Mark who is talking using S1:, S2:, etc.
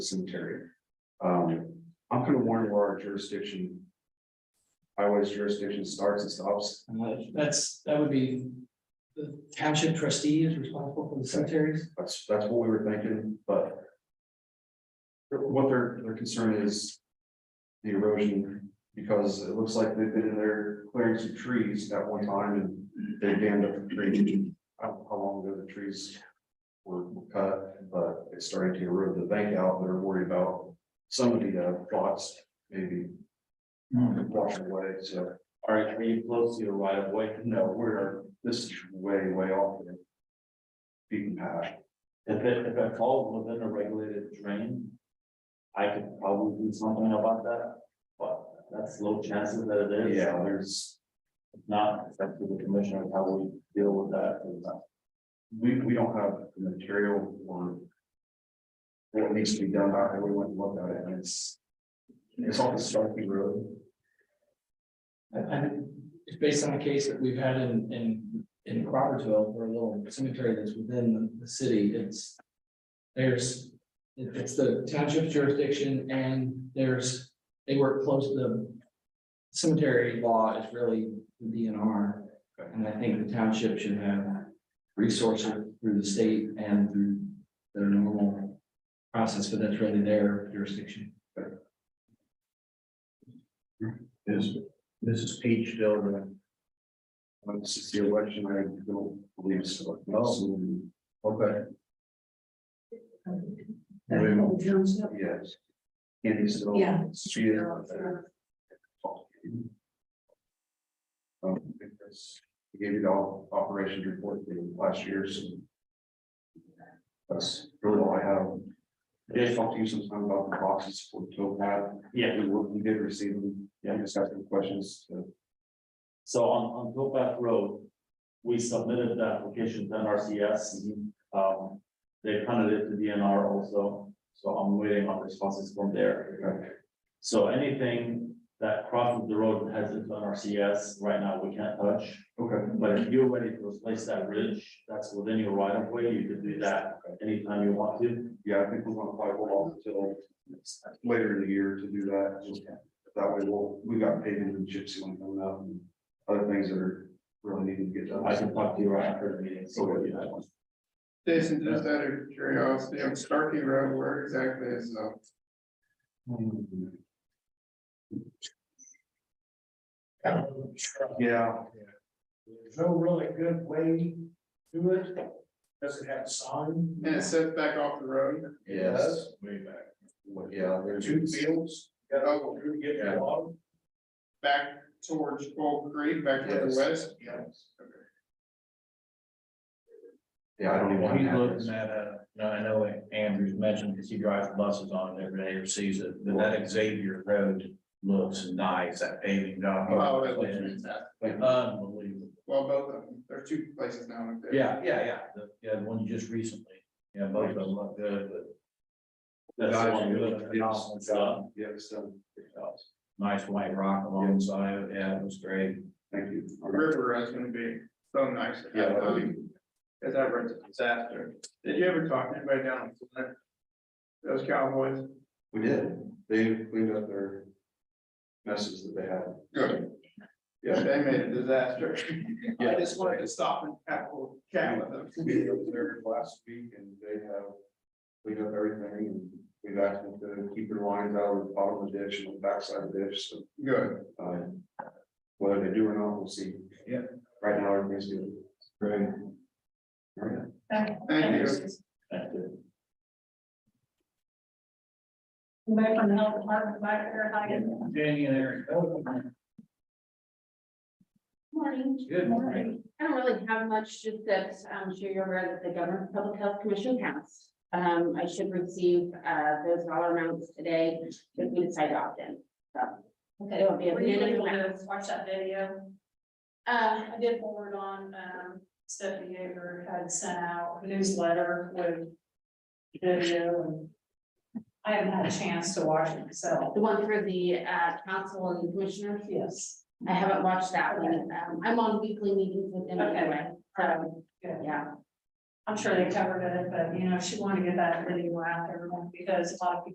S1: cemetery. Um, I'm gonna warn where our jurisdiction. Highways jurisdiction starts and stops.
S2: And that- That's, that would be, the township trustee is responsible for the cemeteries.
S1: That's, that's what we were thinking, but. What their, their concern is. The erosion, because it looks like they've been in there clearing some trees at one time and they dammed up the tree. I don't know how long ago the trees were cut, but it's starting to erode the bank out. They're worried about some of the uh, plots maybe washing away, so.
S3: Are, are you close to your right of way?
S1: No, we're, this is way, way off. the Beaten path.
S3: If it, if it falls within a regulated drain. I could probably do something about that, but that's low chances that it is.
S1: Yeah, there's,
S3: If Not, it's up to the commissioner, how we deal with that.
S1: we, we don't have the material or. What needs to be done, I, we went and looked at it and it's. It's off the Starkey Road.
S2: I- I- it's based on a case that we've had in, in, in Crawfordsville, for a little cemetery that's within the city, it's. There's, it- it's the township jurisdiction and there's, they work close to the. Cemetery law is really the DNR, and I think the township should have resources through the state and through their normal. Process, but that's really their jurisdiction.
S1: Is, this is Page still the. Um, this is the election, I don't believe so. Okay. Yes. Andy's still.
S4: Yeah.
S1: She is. uh, Um, because we gave you the all operations report for last year, so. That's really all I have. I did talk to you sometime about the boxes for towpath.
S3: Yeah.
S1: We were- we did receive them. Yeah, I just got some questions. uh,
S3: So on, on Topac Road, we submitted the application to NRCS. Um, they funded it to DNR also, so I'm waiting on responses from there.
S1: okay.
S3: So anything that crosses the road and heads into NRCS, right now, we can't touch.
S1: Okay.
S3: But if you're ready to replace that ridge, that's within your right of way, you can do that anytime you want to.
S1: Yeah, I think we're gonna probably hold off until later in the year to do that. just That way, we'll, we got paving and gypsy one coming up and other things that are really needing to get done.
S3: I can talk to you right after the meeting, so what you have.
S5: Jason, just out of curiosity, on Starkey Road, where exactly is, uh,
S1: Yeah,
S6: There's no really good way to do it. Does it have a sign?
S5: and it's set back off the road?
S1: yes,
S6: Way back.
S1: Well, yeah, there's.
S6: Two fields, got
S5: Oh,
S6: all through to get to the bottom.
S5: Back towards Gold Creek, back to the
S1: Yes.
S5: west?
S1: Yeah, I don't even.
S7: He's
S1: have
S7: looking
S1: this.
S7: at, uh, no, I know Andrew's mentioned, because he drives buses on it every day or sees it, but that Xavier Road looks nice, that paving job.
S5: Oh, that looks fantastic.
S7: Unbelievable.
S5: Well, both of them, there's two places now. up there.
S7: Yeah, yeah, yeah, the, yeah, the one you just recently, yeah, both of them look good, but
S3: That's the
S7: Guys,
S3: one
S7: you
S3: we
S7: look at
S3: looked at.
S7: all,
S3: So,
S1: Yeah, so,
S7: nice white rock alongside of it, yeah, it was great.
S1: thank you.
S5: The River Road's gonna be so nice.
S1: Yeah.
S5: Cause I read the disaster. Did you ever talk to anybody down in Flint? Those cowboys?
S1: We did, they cleaned up their messes that they had.
S5: Good. Yeah, they made a disaster. I just wanted to stop and have a little chat with them.
S1: We were there last week and they have cleaned up everything and we've asked them to keep their lines out of the bottom of the ditch and the backside of the ditch, so,
S5: Good.
S1: um, whether they do or not, we'll see.
S7: Yeah.
S1: Right now, everything's good. Great. All right.
S5: Thank you.
S3: thank you.
S4: Anybody from the health department back there, hi. Good
S7: Danny and Eric.
S4: Morning.
S7: Good morning.
S4: I don't really have much, just that um, I'm sure you're aware that the government public health commission passed. Um, I should receive, uh, those dollar amounts today, if we decide to opt in, so. Okay, it'll be.
S8: Were you able
S4: a-
S8: to watch that video? Um,
S4: Uh,
S8: I did forward on, um, Stephanie Yeager had sent out a newsletter with video and I haven't had a chance to watch it myself.
S4: the one for the, uh, council and commissioners,
S8: Yes.
S4: I haven't watched that one, um, I'm on weekly meetings with them anyway, so,
S8: Good.
S4: yeah.
S8: I'm sure they covered it, but you know, she wanted to get that video out there because a lot of people